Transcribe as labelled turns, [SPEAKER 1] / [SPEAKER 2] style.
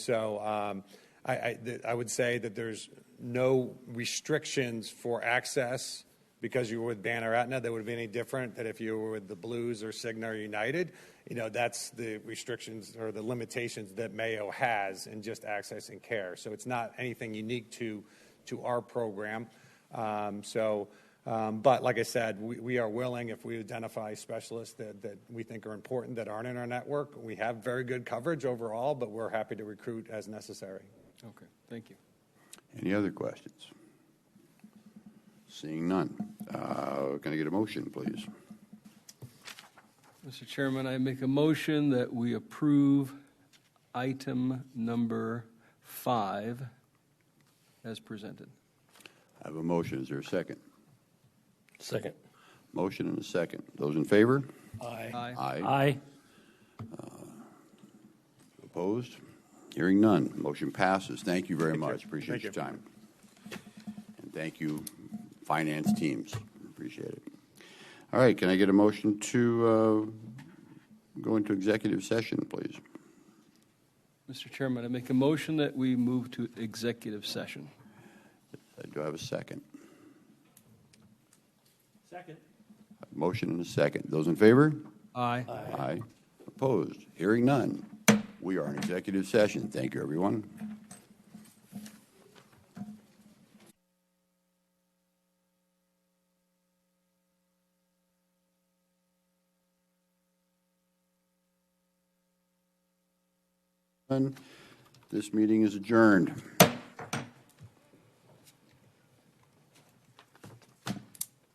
[SPEAKER 1] So um, I would say that there's no restrictions for access because you were with Banner Aetna. That would be any different than if you were with the Blues or Cigna or United. You know, that's the restrictions or the limitations that Mayo has in just accessing care. So it's not anything unique to our program. Um, So, um, but like I said, we are willing, if we identify specialists that we think are important that aren't in our network. We have very good coverage overall, but we're happy to recruit as necessary.
[SPEAKER 2] Okay, thank you.
[SPEAKER 3] Any other questions? Seeing none, Uh, can I get a motion, please?
[SPEAKER 2] Mr. Chairman, I make a motion that we approve item number five as presented.
[SPEAKER 3] I have a motion. Is there a second?
[SPEAKER 4] Second.
[SPEAKER 3] Motion and a second. Those in favor?
[SPEAKER 2] Aye.
[SPEAKER 4] Aye.
[SPEAKER 3] Opposed? Hearing none, motion passes. Thank you very much. Appreciate
[SPEAKER 1] Thank
[SPEAKER 3] your
[SPEAKER 1] you.
[SPEAKER 3] time. And thank you, finance teams. Appreciate it. All right, can I get a motion to uh, go into executive session, please?
[SPEAKER 2] Mr. Chairman, I make a motion that we move to executive session.
[SPEAKER 3] Uh, Do I have a second?
[SPEAKER 4] Second.
[SPEAKER 3] Motion and a second. Those in favor?
[SPEAKER 2] Aye.
[SPEAKER 3] Aye. Opposed? Hearing none. We are in executive session. Thank you, everyone. This meeting is adjourned.